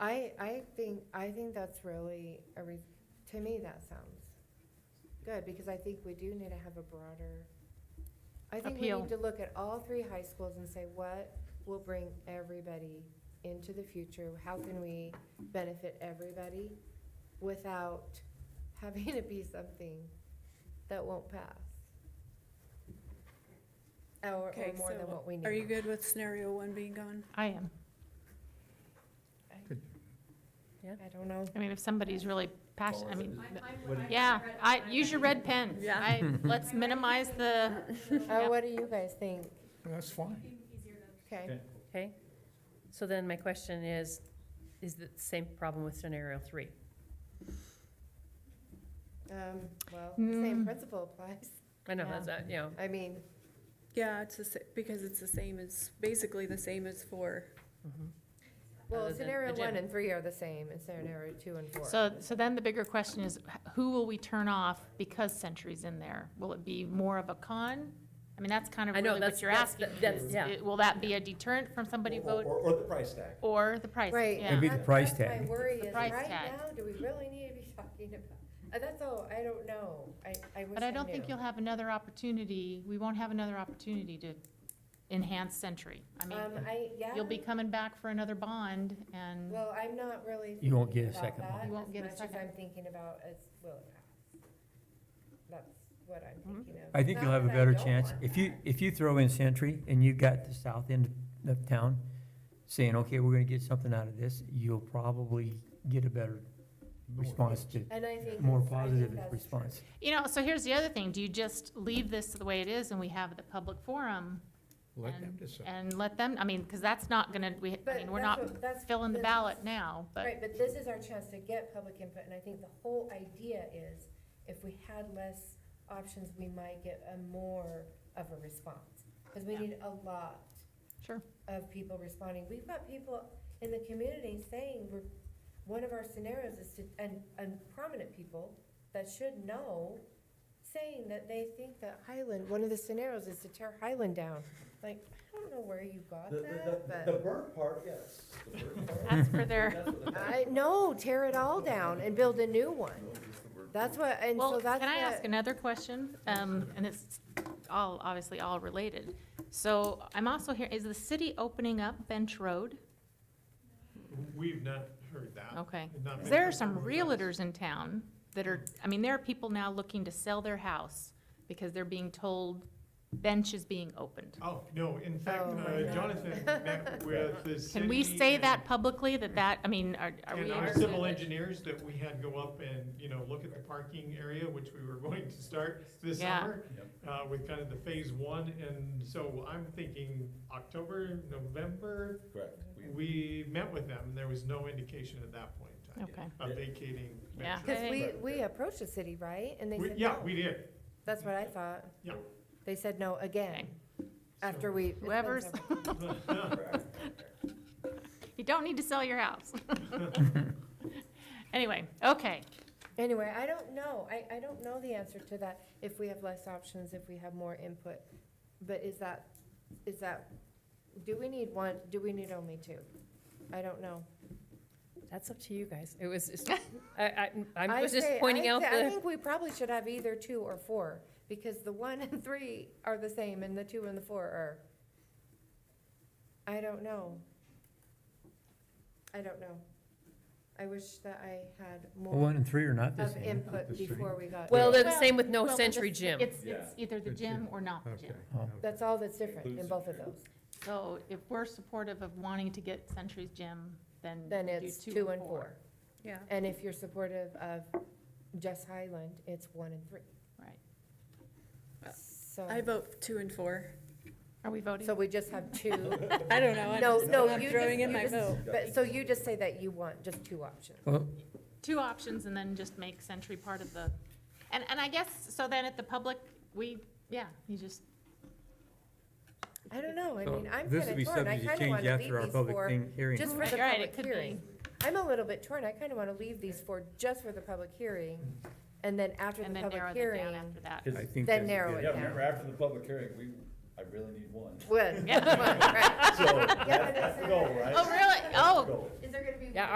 I, I think, I think that's really, a re- to me, that sounds good, because I think we do need to have a broader, I think we Appeal. need to look at all three high schools and say, what will bring everybody into the future? How can we benefit everybody without having it be something that won't pass? Or, or Okay, more than so what we need. Are you good with scenario one being gone? I am. I don't know. I mean, if somebody's really passionate, I Follow mean, What- yeah, I, use your red pen. Yeah. I, let's minimize the, Uh, what do you guys think? That's fine. Okay, Okay. Okay, so then my question is, is the same problem with scenario three? um, well, same Hmm. principle applies. I know, Yeah. that's, uh, you know, I mean, Yeah, it's the sa- because it's the same as, basically the same as for, Other well, than scenario the one gym. and three are the same, and scenario two and four. so, so then the bigger question is, who will we turn off because Century's in there? Will it be more of a con? I mean, that's kind of I know, really what that's, you're that's, asking. that's, is yeah. it- Will that be a deterrent from somebody Or, vote, or or the price tag. or the price? Right. yeah. It'd be the That- price that's My tag. worry The is, price right tag. now, do we really need to be talking about, uh, that's all, I don't know. I, I wish But I I don't think knew. you'll have another opportunity, we won't have another opportunity to enhance Century. I mean, Um, I, yeah, you'll be coming back for another bond, and well, I'm not really. You won't thinking get a about second one. that You won't as get a much as second. I'm thinking about as, will it pass? That's what I'm Mhm. thinking of. I think Not you'll have a that I better don't chance. want If you, that. if you throw in Sentry and you've got the south end of town saying, okay, we're gonna get something out of this, you'll probably get a better response to, And I think. more that's- I think positive that's true. response. You know, so here's the other thing, do you just leave this the way it is and we have the public forum? Let and- them decide. And let them, I mean, because that's not gonna, we, I But mean, we're that's not what- that's- filling the that's- ballot now, but, Right, but this is our chance to get public input, and I think the whole idea is, if we had less options, we might get a more of a response. Because we Yeah. need a lot sure. of people responding. We've got people in the community saying, we're, one of our scenarios is to, and, and prominent people that should know, saying that they think that Highland, one of the scenarios is to tear Highland down. Like, I don't know where you got The, that, the, the but, burnt part, yes. The burnt part. That's for their, That's what the- I, no, tear it all down and build a new one. That's what, and so well, that's what. can I ask another question? Um, and it's all, obviously all related. So I'm also here, is the city opening up Bench Road? We've not heard that. Okay. Not 'Cause many There are some people have. realtors in town that are, I mean, there are people now looking to sell their house because they're being told Bench is being opened. Oh, no, in fact, Oh, my uh, God. Jonathan met with the city. Can we say and- that publicly, that that, I mean, are, are we? And our interested civil in- engineers that we had go up and, you know, look at the parking area, which we were going to start this Yeah. summer, uh, with kind of the phase one, and so I'm thinking October, November, Correct. We- we met with them, and there was no indication at that point in time Okay, of vacating. Yeah. Metro. Because we, we approached the city, right? And they We- said Yeah, no. we did. That's what I thought. Yeah. They said no again, after we. it's been Whoever's- several- Correct. you don't need to sell your house. Anyway, okay, Anyway, I don't know. I, I don't know the answer to that, if we have less options, if we have more input. But is that, is that, do we need one, do we need only two? I don't know. That's up to you guys. It was, just- I, I, I I was just say- pointing I out say- I the, think we probably should have either two or four, because the one and three are the same, and the two and the four are. I don't know. I don't know. I wish that I had one more and three are not the of same. input before we got. well, they're the Well- same with no well, but Century this- Gym. it's, Yeah. it's either the gym or not the gym. Oh. That's all that's different in both of those. So if we're supportive of wanting to get Century's Gym, then Then do it's two or and four. yeah. And if you're supportive of Jess Highland, it's one and three. Right. So, I vote two and four. Are we voting? so we just have two. I don't know. I No, just- no, I'm you Throwing just- in you my just- vote. But, so you just say that you want just two options. Well, two options and then just make Century part of the, and, and I guess, so then at the public, we, yeah, you just. I don't know, I so mean, I'm this will kinda be torn, I subject to kinda change wanna leave after our these public for, thing- hearing. just for Right, the right, public it could be. hearing. I'm a little bit torn, I kinda wanna leave these for, just for the public hearing, and then after the And then narrow public them hearing. down after that. I Because- Then think that's a narrow good it Yeah, idea. remember after the public hearing, we, I really need one. Would, Yeah. right. So, Yeah, but that's the goal, right? Oh, really? Oh, Goal. Is there gonna be Yeah,